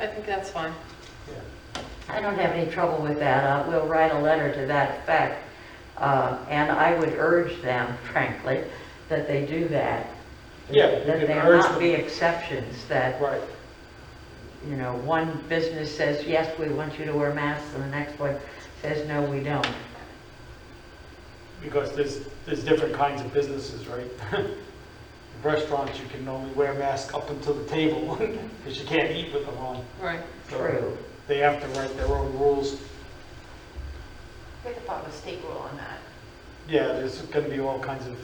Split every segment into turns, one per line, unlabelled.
I think that's fine.
I don't have any trouble with that. Uh, We'll write a letter to that effect. Uh, And I would urge them, frankly, that they do that.
Yeah, you
That
can
there
urge
not
them.
be exceptions, that,
Right,
you know, one business says, yes, we want you to wear masks, and the next one says, no, we don't.
because there's, there's different kinds of businesses, right? Restaurants, you can only wear masks up until the table, because you can't eat with them on.
Right.
So
True.
They have to write their own rules.
We have to follow the state rule on that.
Yeah, there's gonna be all kinds of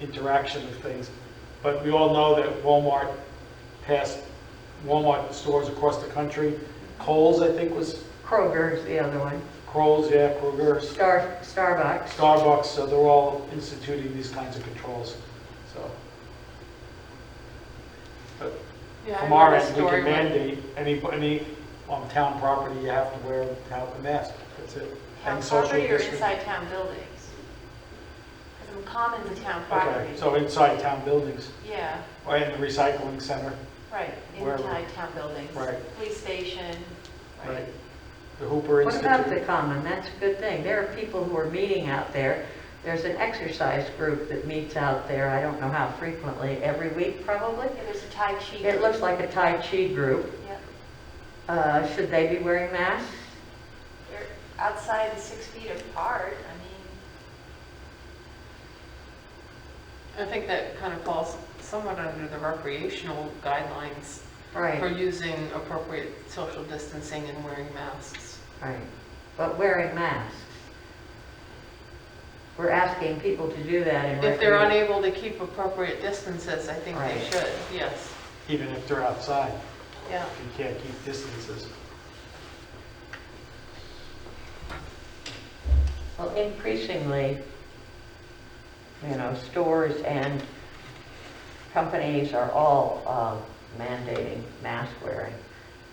interaction of things. But we all know that Walmart passed, Walmart stores across the country, Kohl's, I think, was,
Kroger's the other one.
Kohl's, yeah, Kroger's,
Star, Starbucks.
Starbucks, so they're all instituting these kinds of controls, so. But
Yeah, I
From our
remember the
end, we
story
can
when-
mandate, any, any, on town property, you have to wear a mask, that's it.
Town
And social
property or
distancing.
inside town buildings? Because commons in town
Okay,
property.
so inside town buildings,
Yeah,
or in the recycling center,
right,
Wherever.
inside town buildings.
Right.
Police station,
right?
right.
The Hooper
What about the
Institute.
common? That's a good thing. There are people who are meeting out there. There's an exercise group that meets out there, I don't know how frequently, every week probably.
Yeah, there's a Tai Chi.
It looks like a Tai Chi group.
Yeah.
Uh, Should they be wearing masks?
They're outside and six feet apart, I mean,
I think that kind of falls somewhat under the recreational guidelines for
Right,
using appropriate social distancing and wearing masks.
right. But wearing masks. We're asking people to do that in
If they're
recre-
unable to keep appropriate distances, I think they
Right.
should, yes.
Even if they're outside,
Yeah.
you can't keep distances.
Well, increasingly, you know, stores and companies are all uh, mandating mask wearing,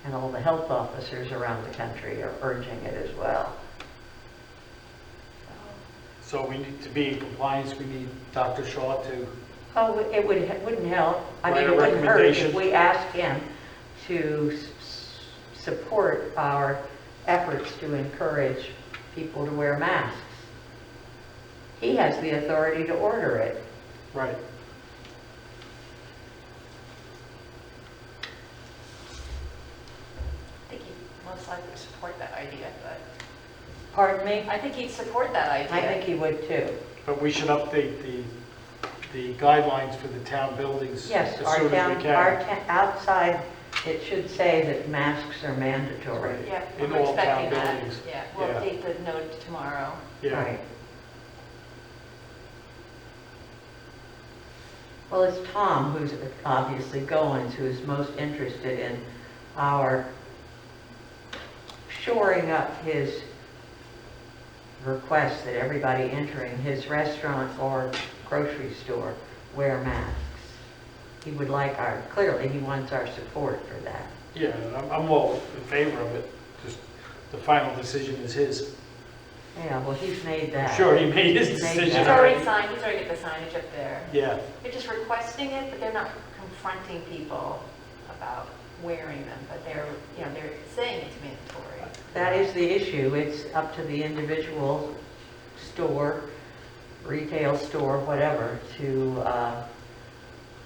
and all the health officers around the country are urging it as well.
So we need to be in compliance, we need Dr. Shaw to,
Oh, it would, it wouldn't help, I mean,
Write a
it wouldn't hurt if
recommendation.
we asked him to s- s- support our efforts to encourage people to wear masks. He has the authority to order it.
right,
I think he'd most likely support that idea, but
Pardon me?
I think he'd support that idea.
I think he would too.
but we should update the, the guidelines for the town buildings as
Yes,
soon
our
as
town,
we
our
can.
ta- outside, it should say that masks are mandatory.
Right.
Yeah,
In
we're
all town
expecting that.
buildings.
Yeah, we'll
Yeah.
update the note tomorrow.
Yeah,
Right. Well, it's Tom who's obviously Goins, who's most interested in our shoring up his request that everybody entering his restaurant or grocery store wear masks. He would like our, clearly, he wants our support for that.
yeah, and I'm, I'm all in favor of it, just the final decision is his.
Yeah, well, he's made that.
Sure, he made his
He's made
decision.
He's
that.
already signed, he's already got the signage up there.
Yeah,
They're just requesting it, but they're not confronting people about wearing them, but they're, you know, they're saying it's mandatory.
That is the issue. It's up to the individual store, retail store, whatever, to uh,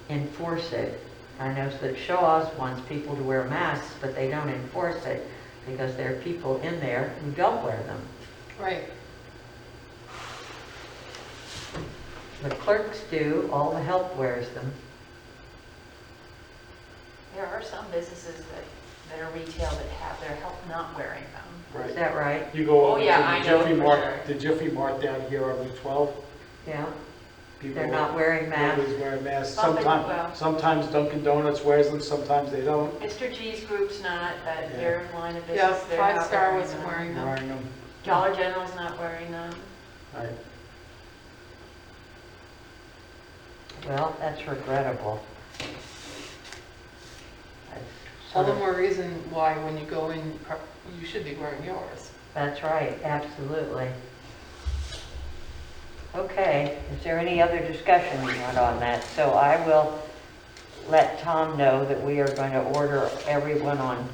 enforce it. I know that Shaw's wants people to wear masks, but they don't enforce it because there are people in there who don't wear them.
Right.
The clerks do, all the help wears them.
There are some businesses that, that are retail that have their help not wearing them.
Is
right.
that right?
You go
Oh,
over to
yeah, I
the
know
Jiffy
it for
Mart, the Jiffy Mart down here on Route 12.
Yeah,
people
they're not wearing masks.
Always wear masks.
Well, they- well.
Sometimes, sometimes Dunkin' Donuts wears them, sometimes they don't.
Mr. G's group's not, but their line of
Yeah,
business, they're not wearing
Five Star wasn't
them.
wearing them.
Wearing them,
Dollar General's not wearing them.
right.
Well, that's regrettable. That's
All
sort
the
of-
more reason why when you go in, you should be wearing yours.
That's right, absolutely. Okay, is there any other discussion you want on that? So I will let Tom know that we are going to order everyone on